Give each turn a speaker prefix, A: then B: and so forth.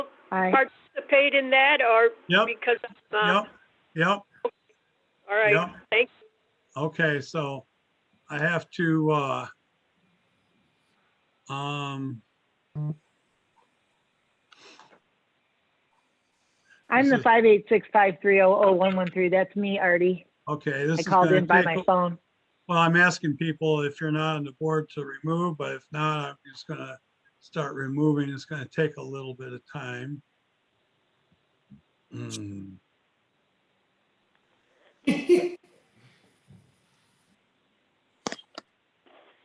A: Aye.
B: participate in that or
C: Yep,
B: because of, uh,
C: yep, yep.
B: all right,
C: Yep.
B: thank,
C: Okay, so I have to, uh, um,
A: I'm the
C: This is-
A: five eight six five three oh oh one one three. That's me, Artie.
C: okay, this
A: I
C: is
A: called
C: gonna
A: in by my
C: take,
A: phone.
C: well, I'm asking people if you're not on the board to remove, but if not, I'm just gonna start removing. It's gonna take a little bit of time. Hmm.